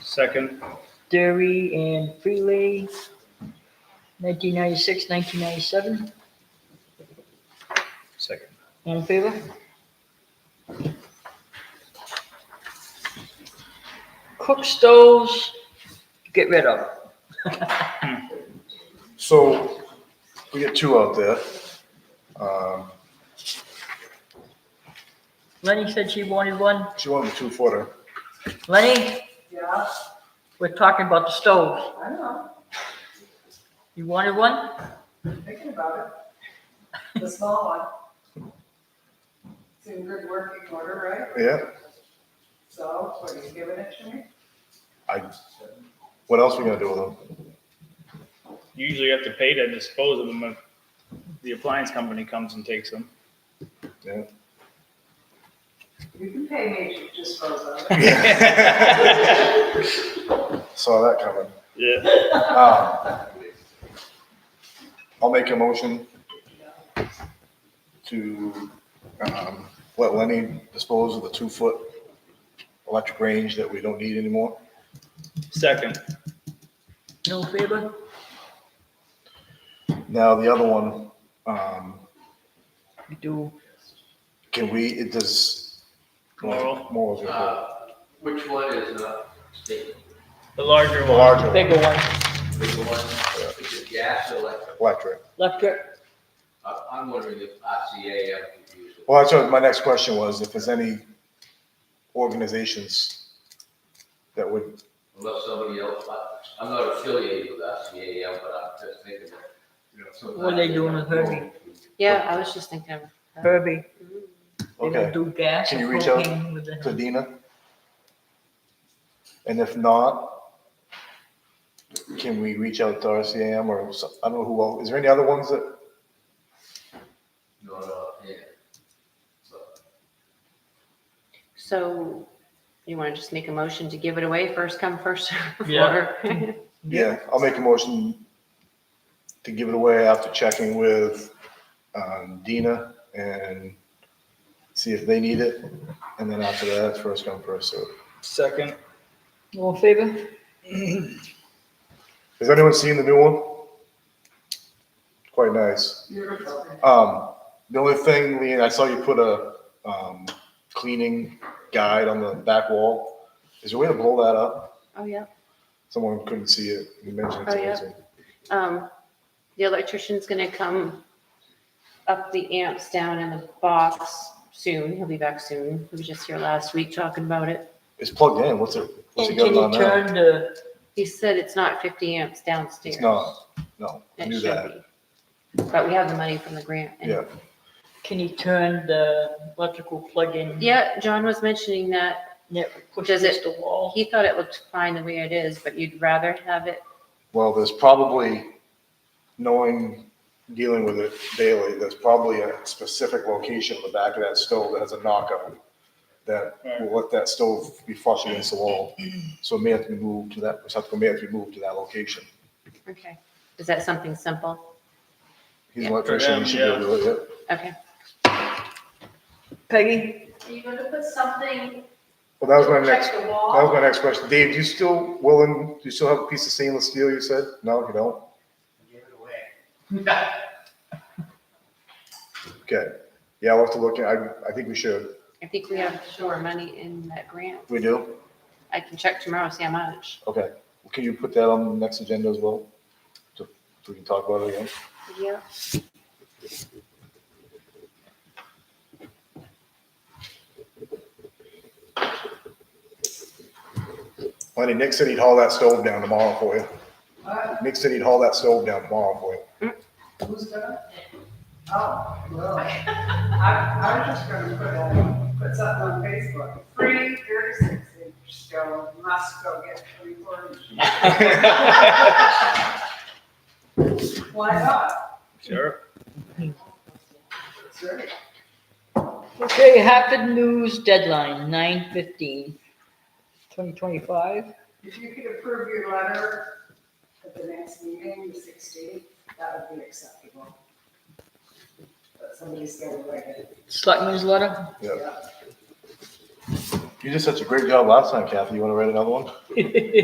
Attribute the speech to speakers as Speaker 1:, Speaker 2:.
Speaker 1: Second,
Speaker 2: Derry and Freely, 1996, 1997.
Speaker 1: second.
Speaker 2: All in favor? Cook stoves, get rid of.
Speaker 3: So we get two out there. Um,
Speaker 2: Lenny said she wanted one.
Speaker 3: She wanted the two footer.
Speaker 2: Lenny,
Speaker 4: Yeah,
Speaker 2: we're talking about the stoves.
Speaker 4: I know,
Speaker 2: You wanted one?
Speaker 4: I'm thinking about it. The small one. It's in good working order, right?
Speaker 3: Yeah.
Speaker 4: So, what, are you giving it to me?
Speaker 3: I, what else we gonna do with them?
Speaker 1: You usually have to pay to dispose of them if the appliance company comes and takes them.
Speaker 3: Yeah.
Speaker 4: You can pay me to dispose of it.
Speaker 3: Saw that coming.
Speaker 1: Yeah,
Speaker 3: Um, I'll make a motion to, um, let Lenny dispose of the two-foot electric range that we don't need anymore.
Speaker 1: second.
Speaker 2: No favor?
Speaker 3: Now, the other one, um,
Speaker 2: You do.
Speaker 3: can we, it does.
Speaker 1: Moral.
Speaker 3: Moral's gonna
Speaker 5: Uh, Which one is uh, not state,
Speaker 1: The larger
Speaker 3: do it. The
Speaker 1: one.
Speaker 3: larger one,
Speaker 2: Bigger one,
Speaker 5: which one, which is gas or electric?
Speaker 3: electric.
Speaker 2: electric.
Speaker 5: I- I'm wondering if RCA, I'm confused.
Speaker 3: Well, that's what my next question was, if there's any organizations that would,
Speaker 5: Unless somebody else, I- I'm not affiliated with RCAM, but I'm just thinking that, you know, sometimes.
Speaker 2: What are they doing with Herbie?
Speaker 6: Yeah, I was just thinking of
Speaker 2: Herbie, they don't
Speaker 3: okay,
Speaker 2: do gas
Speaker 3: Can you
Speaker 2: or
Speaker 3: reach out
Speaker 2: propane with
Speaker 3: to
Speaker 2: the,
Speaker 3: Dina? And if not, can we reach out to RCAM or, so- I don't know who else, is there any other ones that,
Speaker 5: No, no, yeah. But
Speaker 6: So you want to just make a motion to give it away first come first served?
Speaker 1: Yeah.
Speaker 6: or-
Speaker 3: yeah, I'll make a motion to give it away after checking with, um, Dina and see if they need it, and then after that, it's first come, first served.
Speaker 1: Second.
Speaker 2: all in favor?
Speaker 3: Has anyone seen the new one? Quite nice.
Speaker 4: Beautiful.
Speaker 3: Um, the only thing, Lean, I saw you put a, um, cleaning guide on the back wall. Is there a way to blow that up?
Speaker 6: Oh, yeah.
Speaker 3: Someone couldn't see it. You mentioned it
Speaker 6: Oh, yeah.
Speaker 3: to me.
Speaker 6: Um, the electrician's gonna come up the amps down in the box soon. He'll be back soon. He was just here last week talking about it.
Speaker 3: It's plugged in. What's it, what's it
Speaker 2: And
Speaker 3: got
Speaker 2: can
Speaker 3: on
Speaker 2: you
Speaker 3: now?
Speaker 2: turn the,
Speaker 6: He said it's not fifty amps downstairs.
Speaker 3: It's not. No, I
Speaker 6: It
Speaker 3: knew
Speaker 6: should
Speaker 3: that.
Speaker 6: be. But we have the money from the grant. and-
Speaker 3: Yeah.
Speaker 2: can you turn the electrical plug in?
Speaker 6: Yeah, John was mentioning that.
Speaker 2: Yeah, push
Speaker 6: Does
Speaker 2: against the wall.
Speaker 6: He thought it looked fine the way it is, but you'd rather have it
Speaker 3: Well, there's probably, knowing, dealing with it daily, there's probably a specific location in the back of that stove that has a knockout that will let that stove be flush against the wall. So it may have to be moved to that, receptacle may have to be moved to that location.
Speaker 6: Okay, is that something simple?
Speaker 3: He's
Speaker 6: Yeah.
Speaker 3: an electrician, he should be able to do it.
Speaker 6: Okay,
Speaker 2: Peggy,
Speaker 7: Are you gonna put something?
Speaker 3: Well, that was my
Speaker 7: Check
Speaker 3: next,
Speaker 7: the
Speaker 3: that
Speaker 7: wall?
Speaker 3: was my next question. Dave, do you still willing, do you still have a piece of stainless steel, you said? No, you don't?
Speaker 5: Give it away.
Speaker 3: Okay. Yeah, I'll have to look, at- I, I think we should.
Speaker 6: I think we have more money in that grant.
Speaker 3: We do?
Speaker 6: I can check tomorrow, see how much.
Speaker 3: Okay. Can you put that on the next agenda as well? So so we can talk about it again?
Speaker 6: Yeah.
Speaker 3: Lenny, Nick said he'd haul that stove down tomorrow for you.
Speaker 4: What?
Speaker 3: Nick said he'd haul that stove down tomorrow for you.
Speaker 4: Who's gonna? Oh, well, I, I'm just gonna put on, put something on Facebook. Free thirty-six inch stove, must go get three quarters. Why not?
Speaker 1: Sure.
Speaker 4: Sure.
Speaker 2: okay, Happen News deadline, 9:15, 2025.
Speaker 4: If you could approve your letter at the next meeting, the sixteenth, that would be acceptable. But somebody's gonna write it.
Speaker 2: Selectmen's letter?
Speaker 3: Yeah. You did such a great job last time, Kathy. You want to write another one?